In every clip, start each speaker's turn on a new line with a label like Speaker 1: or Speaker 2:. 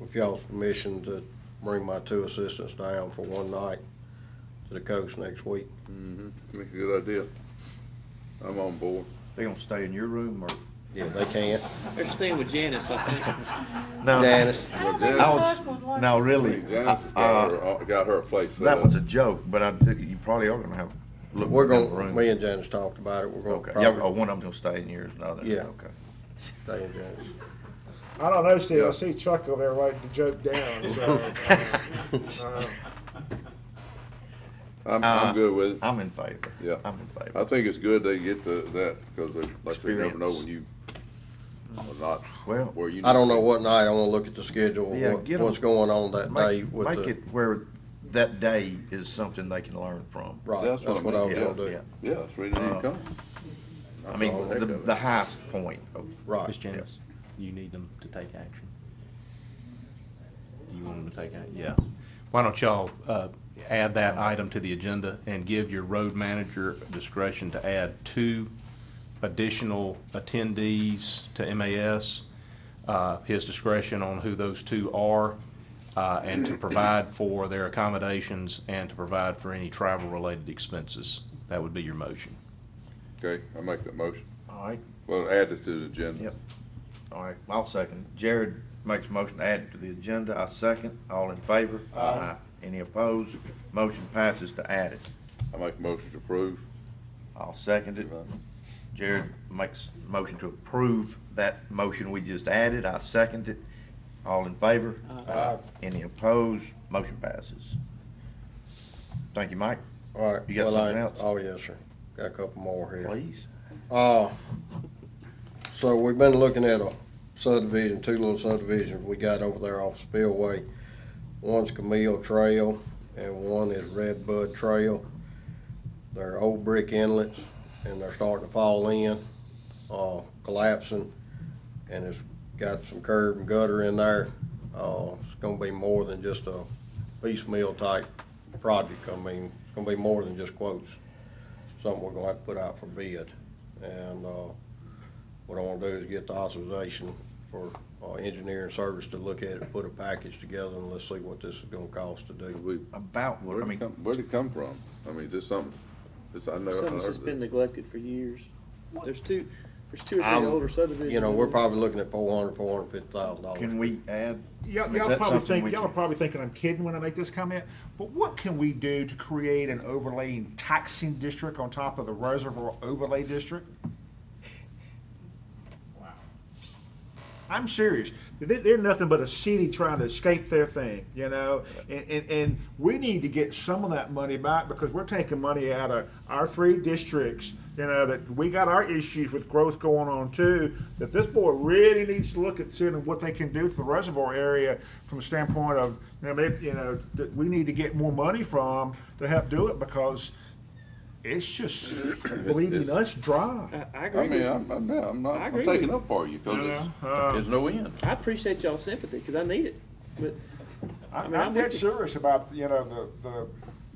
Speaker 1: with y'all's permission to bring my two assistants down for one night to the coast next week.
Speaker 2: That's a good idea. I'm on board.
Speaker 3: They gonna stay in your room or?
Speaker 1: Yeah, they can't.
Speaker 4: They're staying with Janice, I think.
Speaker 1: Janice,
Speaker 2: Well,
Speaker 3: I
Speaker 2: Janice,
Speaker 3: was, no, really,
Speaker 2: Janice has
Speaker 3: uh,
Speaker 2: got her, got her place set
Speaker 3: that
Speaker 2: up.
Speaker 3: was a joke, but I, did- you probably are gonna have. look
Speaker 1: we're
Speaker 3: in the
Speaker 1: gonna,
Speaker 3: room.
Speaker 1: me and Janice talked about it. We're gonna
Speaker 3: Okay, yeah, oh,
Speaker 1: probably
Speaker 3: one of them's gonna stay in yours, and the other.
Speaker 1: Yeah.
Speaker 3: Okay.
Speaker 1: stay in Janice.
Speaker 5: I don't know, Steve.
Speaker 2: Yeah.
Speaker 5: I see Chuck over there writing the joke down. So, uh, uh,
Speaker 2: I'm,
Speaker 3: Uh,
Speaker 2: I'm good with it.
Speaker 3: I'm in favor.
Speaker 2: Yeah.
Speaker 3: I'm in favor.
Speaker 2: I think it's good they get the, that, because they, like, they never know
Speaker 3: Experience.
Speaker 2: when you are not,
Speaker 3: Well,
Speaker 2: where you.
Speaker 1: I don't know what night. I wanna look at the schedule,
Speaker 3: Yeah,
Speaker 1: what,
Speaker 3: get 'em-
Speaker 1: what's going on that day
Speaker 3: Make,
Speaker 1: with
Speaker 3: make
Speaker 1: the,
Speaker 3: it where that day is something they can learn from.
Speaker 1: right,
Speaker 2: That's
Speaker 1: that's
Speaker 2: what I
Speaker 1: what I was
Speaker 2: mean,
Speaker 1: gonna
Speaker 3: yeah.
Speaker 1: do.
Speaker 2: Yeah, that's where you need to
Speaker 3: Uh,
Speaker 2: come.
Speaker 3: I mean,
Speaker 2: all
Speaker 3: the,
Speaker 2: heck of it.
Speaker 3: the highest point of,
Speaker 1: Right.
Speaker 6: Ms. Janice, you need them to take action. Do you want them to take action? Yeah. Why don't y'all uh, add that item to the agenda and give your road manager discretion to add two additional attendees to MAS, uh, his discretion on who those two are, uh, and to provide for their accommodations and to provide for any travel-related expenses. That would be your motion.
Speaker 2: Okay, I make that motion.
Speaker 3: all right,
Speaker 2: Well, add it to the agenda.
Speaker 3: yep. All right, I'll second. Jared makes a motion to add it to the agenda. I second. All in favor? Aye. Any opposed? Motion passes to add it.
Speaker 2: I make a motion to approve.
Speaker 3: I'll second it. Jared makes a motion to approve that motion we just added. I second it. All in favor? Aye. Any opposed? Motion passes. Thank you, Mike.
Speaker 1: All right.
Speaker 3: You got
Speaker 1: well, I-
Speaker 3: something else?
Speaker 1: Oh, yes, sir. Got a couple more here.
Speaker 3: Please.
Speaker 1: Uh, so we've been looking at a subdivision, two little subdivisions we got over there off Spillway. One's Camille Trail and one is Red Bud Trail. They're old brick inlets and they're starting to fall in, uh, collapsing. And it's got some curb and gutter in there. Uh, it's gonna be more than just a piecemeal type project. I mean, it's gonna be more than just quotes. Something we're gonna have to put out for bid. And uh, what I want to do is get the authorization for uh, engineering service to look at it, put a package together, and let's see what this is going to cost to do.
Speaker 2: We,
Speaker 3: About what,
Speaker 2: where'd
Speaker 3: Uh, I
Speaker 2: it
Speaker 3: mean,
Speaker 2: come, where'd it come from? I mean, is this something, this, I know. I
Speaker 4: Something's
Speaker 2: heard
Speaker 4: just been
Speaker 2: that.
Speaker 4: neglected for years. There's two, there's two or three
Speaker 1: I'm-
Speaker 4: older subdivisions.
Speaker 1: You know, we're
Speaker 4: over there.
Speaker 1: probably looking at four hundred, four hundred fifty thousand dollars.
Speaker 3: can we add?
Speaker 5: y'all,
Speaker 3: Is
Speaker 5: y'all
Speaker 3: that
Speaker 5: probably
Speaker 3: something
Speaker 5: think
Speaker 3: we
Speaker 5: y'all are
Speaker 3: can-
Speaker 5: probably thinking I'm kidding when I make this comment, but what can we do to create an overlaying taxing district on top of the reservoir overlay district? I'm serious. They, they're nothing but a city trying to escape their thing, you know. And, and and we need to get some of that money back because we're taking money out of our three districts. You know that we got our issues with growth going on too. That this board really needs to look at seeing what they can do to the reservoir area from a standpoint of you know, maybe, you know that we need to get more money from to help do it because it's just bleeding
Speaker 2: it's-
Speaker 5: us dry.
Speaker 4: I, I
Speaker 2: I
Speaker 4: agree
Speaker 2: mean,
Speaker 4: with you.
Speaker 2: I'm, I'm, not- I'm not,
Speaker 4: I
Speaker 2: I'm
Speaker 4: agree
Speaker 2: taking
Speaker 4: with
Speaker 2: up for you, cause
Speaker 5: No,
Speaker 2: it's,
Speaker 5: no, uh,
Speaker 2: there's no end.
Speaker 4: I appreciate y'all's sympathy, because I need it. But
Speaker 5: I,
Speaker 4: I mean,
Speaker 5: I'm,
Speaker 4: I'm
Speaker 5: dead
Speaker 4: with you.
Speaker 5: serious about you know the, the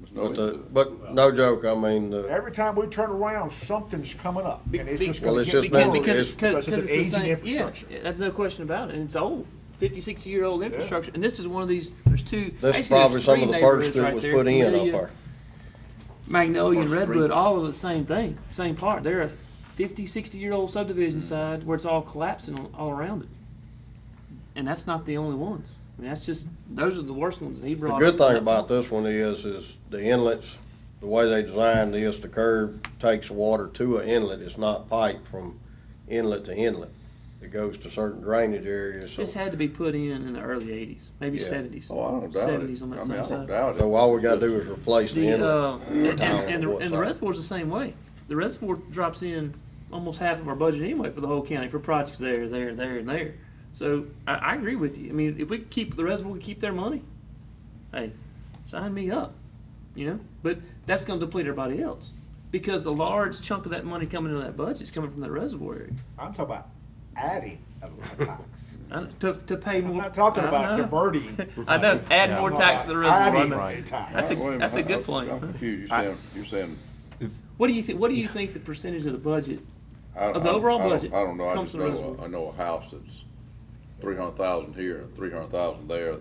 Speaker 2: There's no
Speaker 1: But
Speaker 2: end to
Speaker 1: the,
Speaker 2: it.
Speaker 1: but no joke, I mean, the,
Speaker 5: Every time we turn around, something's coming up, and it's just
Speaker 1: Well,
Speaker 5: going
Speaker 1: it's
Speaker 5: to
Speaker 1: just
Speaker 5: get
Speaker 1: been-
Speaker 5: worse.
Speaker 1: Because-
Speaker 4: Because,
Speaker 5: because it's
Speaker 4: because it's
Speaker 5: an
Speaker 4: the
Speaker 5: aging
Speaker 4: same, yeah,
Speaker 5: infrastructure.
Speaker 4: that's no question about it, and it's old, fifty, sixty-year-old infrastructure, and this is one of these, there's two.
Speaker 1: this
Speaker 4: actually,
Speaker 1: is
Speaker 4: there's
Speaker 1: probably some
Speaker 4: three
Speaker 1: of the
Speaker 4: neighborhoods
Speaker 1: first that
Speaker 4: right
Speaker 1: was
Speaker 4: there, uh,
Speaker 1: put in up
Speaker 4: Camellia,
Speaker 1: there.
Speaker 4: Magnolia and
Speaker 3: Or
Speaker 4: Redwood,
Speaker 3: streets.
Speaker 4: all of the same thing, same part, they're a fifty, sixty-year-old subdivision
Speaker 2: Mm.
Speaker 4: sides where it's all collapsing all- all around it. And that's not the only ones, I mean, that's just, those are the worst ones that he
Speaker 1: The
Speaker 4: brought.
Speaker 1: good
Speaker 4: up.
Speaker 1: thing about this one is, is the inlets, the way they designed this, the curb takes water to an inlet. It's not piped from inlet to inlet. It goes to certain drainage areas, so.
Speaker 4: This had to be put in in the early eighties, maybe
Speaker 1: Yeah.
Speaker 4: seventies.
Speaker 2: Oh, I don't doubt it.
Speaker 4: Seventies on that
Speaker 2: I mean,
Speaker 4: same
Speaker 2: I don't
Speaker 4: side.
Speaker 2: doubt it.
Speaker 1: So all we gotta do is replace the
Speaker 4: The, uh,
Speaker 1: inlet.
Speaker 4: and, and,
Speaker 1: know
Speaker 4: the,
Speaker 1: what's
Speaker 4: and the
Speaker 1: up.
Speaker 4: reservoir's the same way. The reservoir drops in almost half of our budget anyway for the whole county for projects there, there, there, and there. So I, I agree with you. I mean, if we could keep the reservoir, we could keep their money. Hey, sign me up. You know, but that's going to deplete everybody else because a large chunk of that money coming into that budget is coming from that reservoir area
Speaker 5: I'm talking about adding a tax.
Speaker 4: I- to, to pay
Speaker 5: I'm
Speaker 4: more.
Speaker 5: not talking
Speaker 4: I
Speaker 5: about
Speaker 4: know.
Speaker 5: diverting.
Speaker 4: I know. Uh-huh. Add more
Speaker 5: I'm
Speaker 4: tax
Speaker 5: talking
Speaker 4: to the
Speaker 5: about
Speaker 4: reservoir. I know.
Speaker 5: Adding a tax.
Speaker 4: That's a-
Speaker 2: Wait minute,
Speaker 4: that's a
Speaker 2: I-
Speaker 4: good
Speaker 2: I'm-
Speaker 4: point.
Speaker 2: I'm confused, you're saying, you're saying,
Speaker 4: What do you think? What do you think the percentage of the budget
Speaker 2: I don't.
Speaker 4: Of the
Speaker 2: I don't-
Speaker 4: overall
Speaker 2: I don't-
Speaker 4: budget
Speaker 2: I don't know, I
Speaker 4: comes
Speaker 2: just
Speaker 4: from the
Speaker 2: know,
Speaker 4: reservoir.
Speaker 2: a- I know a house that's three hundred thousand here and three hundred thousand there,